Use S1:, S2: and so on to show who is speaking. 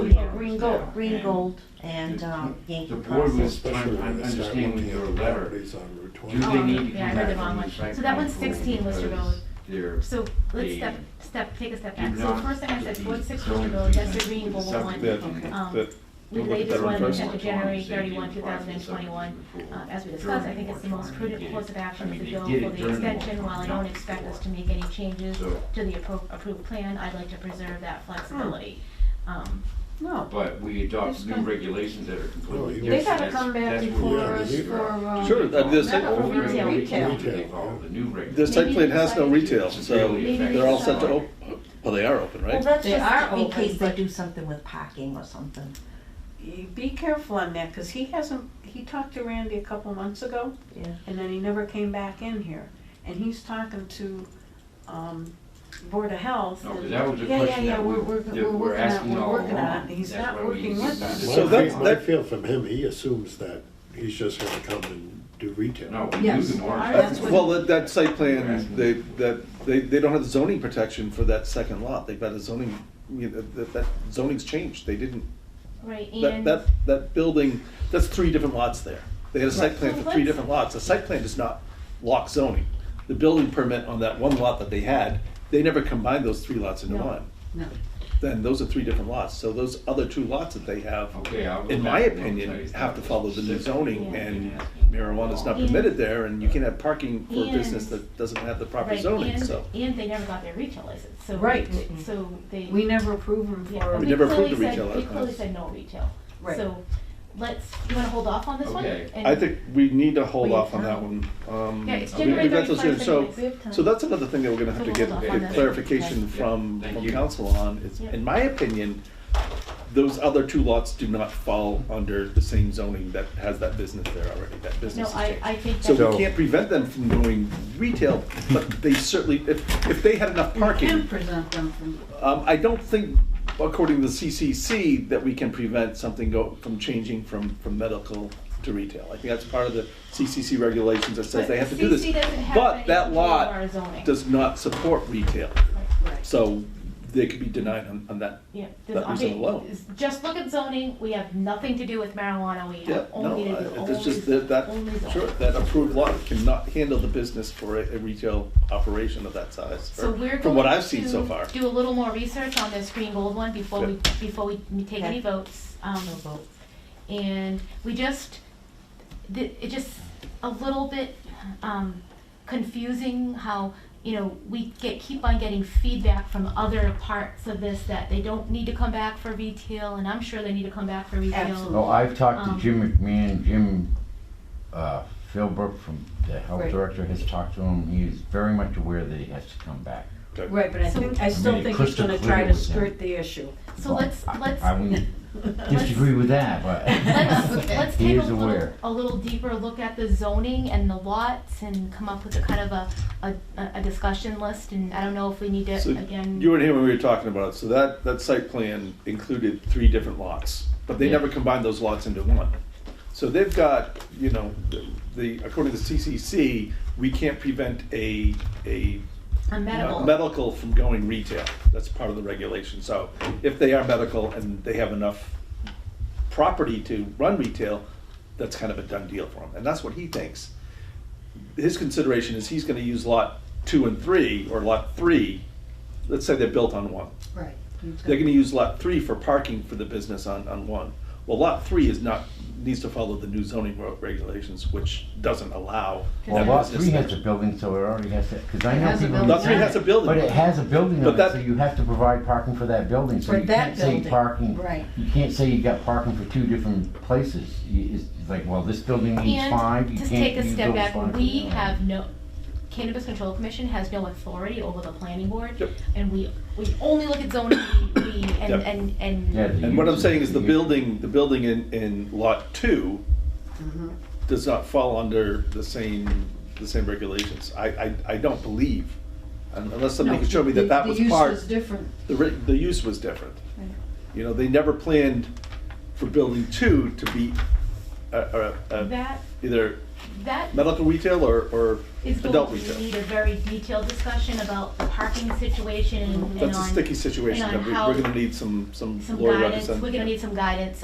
S1: Gold,
S2: now,
S1: Green
S2: and
S1: Gold and um, Yankee
S2: The board was
S1: Process.
S2: trying to
S3: when you start
S2: understand
S3: looking
S2: your
S3: at the
S2: letter.
S3: properties on Route
S2: Do
S3: 20.
S2: they
S4: Oh,
S2: need to
S4: yeah, I
S2: come
S4: read the
S2: back
S4: wrong
S2: from the
S4: one.
S2: site
S4: So that one's
S2: plan approval
S4: 16 Worcester
S2: because
S4: Road.
S2: They're
S4: So let's step,
S2: The-
S4: step, take a step
S2: Do
S4: back. So
S2: not
S4: first thing I said,
S2: be
S4: Ward Six
S2: zoned
S4: Worcester Road, that's the
S2: even
S4: green
S2: with
S4: bubble one.
S2: subdivision.
S5: Okay.
S4: Um,
S5: That-
S4: We
S5: We'll look at
S4: latest
S5: that one
S4: one,
S5: first.
S4: effective January thirty-one, two thousand and twenty-one. Uh, as we discussed, I think it's the most prudent course of action to go for the extension. While I don't expect us to make any changes
S2: So-
S4: to the appro- approved plan, I'd like to preserve that flexibility. Um,
S5: No.
S2: But we adopt new regulations that are completely
S3: They've
S2: different.
S5: gotta
S2: That's-
S5: come back
S2: that's what
S3: before
S2: we're-
S3: us for,
S4: um,
S5: uh,
S6: Sure, uh, this-
S2: Over and
S5: Retail.
S2: over
S5: Retail.
S2: again, they follow The new
S6: This
S2: regulations.
S6: site plan has no retail, so they're all set to open, well, they are open,
S1: Well,
S6: right?
S1: that's
S5: They are
S1: just in
S5: open,
S1: case they
S5: but-
S1: do something with parking or something.
S5: You Be careful on that, because he hasn't, he talked to Randy a couple months ago,
S1: Yeah.
S5: and then he never came back in here. And he's talking to, um, Board of Health.
S2: No, 'cause
S5: and-
S2: that was a
S5: Yeah,
S2: question
S5: yeah, yeah,
S2: that
S5: we're,
S2: we-
S5: we're,
S2: that
S5: we're
S2: we're
S5: working on,
S2: asking
S5: we're
S2: all
S5: working on
S2: along.
S5: it, and he's
S2: That's
S5: not
S2: why we
S5: working
S2: need
S5: with
S2: to
S5: us.
S2: do
S3: My
S6: So that's-
S3: fe- My
S6: that-
S3: feel from him, he assumes that he's just gonna come and do retail.
S2: No, we
S5: Yes.
S2: do the orange.
S5: That's what-
S6: Well, that, that site plan, they, that, they, they don't have zoning protection for that second lot, they've got a zoning, you know, that, that zoning's changed, they didn't,
S4: Right,
S6: that,
S4: and.
S6: that, that building, that's three different lots there. They had a site plan for
S4: Well,
S6: three
S4: let's-
S6: different lots, the site plan does not lock zoning. The building permit on that one lot that they had, they never combined those three lots into
S4: No.
S6: one.
S5: No.
S6: Then those are three different lots, so those other two lots that they have
S2: Okay, I'll go
S6: in
S2: back
S6: my
S2: and look at
S6: opinion,
S2: it.
S6: have to follow the new zoning,
S4: Yeah.
S6: and marijuana's not permitted there, and you can have parking for a business that doesn't have the proper
S4: Right,
S6: zoning,
S4: and-
S6: so.
S4: And they never got their retail license, so.
S5: Right.
S4: So they.
S5: We never approve him
S4: Yeah, but
S5: for,
S6: We
S4: we
S6: never
S4: clearly
S6: approved the retail
S4: said, we
S6: license.
S4: clearly said no retail.
S5: Right.
S4: So let's, you wanna hold off on this one?
S2: Okay.
S4: And-
S6: I think we need to hold
S4: Wait,
S6: off on
S4: huh?
S6: that one. Um,
S4: Yeah, it's
S6: we-
S4: January
S6: we've got those
S4: 31st
S6: here.
S4: anyway, we have
S6: So,
S4: time.
S6: so that's another thing that we're gonna have to
S4: So
S6: get
S4: we'll hold off on that.
S6: clarification
S4: Okay.
S6: from,
S2: Thank
S6: from
S2: you.
S6: council on. It's,
S4: Yeah.
S6: in my opinion, those other two lots do not fall under the same zoning that has that business there already, that
S4: No,
S6: business is
S4: I,
S6: changed.
S4: I think
S6: So
S4: that,
S6: we can't prevent them from doing retail, but they certainly, if, if they had enough
S5: we can
S6: parking,
S5: present them from,
S6: um, I don't think, according to the CCC, that we can prevent something go, from changing from, from medical to retail. I think that's part of the CCC regulations that says
S4: But
S6: they have to do
S4: CCC
S6: this.
S4: doesn't have
S6: But that
S4: anything to do with our
S6: lot
S4: zoning.
S6: does not support retail,
S5: right.
S6: so they could be denied on, on that.
S4: yeah,
S6: That
S4: this,
S6: reason
S4: okay,
S6: alone.
S4: is- just look at zoning, we have nothing to do with marijuana, we
S6: Yeah,
S4: have
S6: no,
S4: only to do,
S6: I-
S4: only,
S6: it's just that, that,
S4: only zoning.
S6: sure, that approved lot cannot handle the business for a, a retail operation of that size,
S4: So
S6: or
S4: we're
S6: from what
S4: going
S6: I've seen so
S4: to
S6: far.
S4: Do a little more research on this green gold one before we, before we take any
S1: Okay.
S4: votes. Um,
S1: No vote.
S4: and we just, th- it just a little bit um, confusing how, you know, we get, keep on getting feedback from other parts of this that they don't need to come back for retail, and I'm sure they need to come back for retail.
S5: Absolutely.
S7: No, I've talked
S4: Um,
S7: to Jim McMahon, Jim uh, Philbrook from the health
S5: Right.
S7: director has talked to him. He is very much aware that he has to come back.
S6: Okay.
S5: Right, but I
S4: So-
S5: think, I still
S7: mean,
S5: think he's
S7: crystal
S5: gonna
S7: clear
S5: try to
S7: with them.
S5: skirt the issue.
S4: So let's,
S7: Well, I-
S4: let's.
S7: I wouldn't disagree with that, but
S4: Let's, let's
S7: He
S4: take a
S7: is
S4: little,
S7: aware.
S4: a little deeper look at the zoning and the lots and come up with a kind of a, a, a discussion list, and I don't know if we need to,
S6: So
S4: again.
S6: you weren't here when we were talking about it. So that, that site plan included three different lots, but they
S7: Yeah.
S6: never combined those lots into one. So they've got, you know, the- the, according to CCC, we can't prevent a, a
S4: A
S6: uh,
S4: medical.
S6: medical from going retail. That's part of the regulation. So if they are medical and they have enough property to run retail, that's kind of a done deal for him. And that's what he thinks. His consideration is he's gonna use lot two and three, or lot three, let's say they're built on one.
S5: Right.
S6: They're gonna use lot three for parking for the business on, on one. Well, lot three is not, needs to follow the new zoning reg- regulations, which doesn't allow.
S7: Well,
S6: that
S7: lot
S6: business
S7: three has a
S6: there.
S7: building, so it already has to, because I
S5: It
S7: know
S5: has a
S7: people.
S5: building. Lot
S6: three has a building.
S7: But it has a building
S6: But
S7: on it,
S6: that-
S7: so you have to provide parking for that building, so
S5: For
S7: you
S5: that
S7: can't say
S5: building,
S7: parking.
S5: right.
S7: You can't say you got parking for two different places. You- It's like, well, this building needs five,
S4: And
S7: you
S4: to
S7: can't
S4: take a
S7: use
S4: step
S7: those
S4: back,
S7: five for
S4: we
S7: the other.
S4: have no, Cannabis Control Commission has no authority over the planning board.
S6: Yep.
S4: And we, we only look at zoning, we, we, and,
S6: Yep.
S4: and, and.
S7: Yeah, the
S6: And what I'm
S7: use-
S6: saying is the
S7: use-
S6: building, the building in, in lot two
S5: Mm-hmm.
S6: does not fall under the same, the same regulations. I, I, I don't believe, un- unless somebody could show me that that was
S5: The
S6: part,
S5: use is different.
S6: the, re- the use was different. You know, they never planned for building two to be a, a, a,
S4: That,
S6: uh, either
S4: that
S6: medical retail or, or
S4: is
S6: adult
S4: going
S6: retail?
S4: to need a very detailed discussion about the parking situation and on.
S6: That's a sticky situation,
S4: and
S6: that
S4: on
S6: we-
S4: how-
S6: we're gonna need some, some
S4: Some
S6: lawyer
S4: guidance,
S6: representation.
S4: we're gonna need some guidance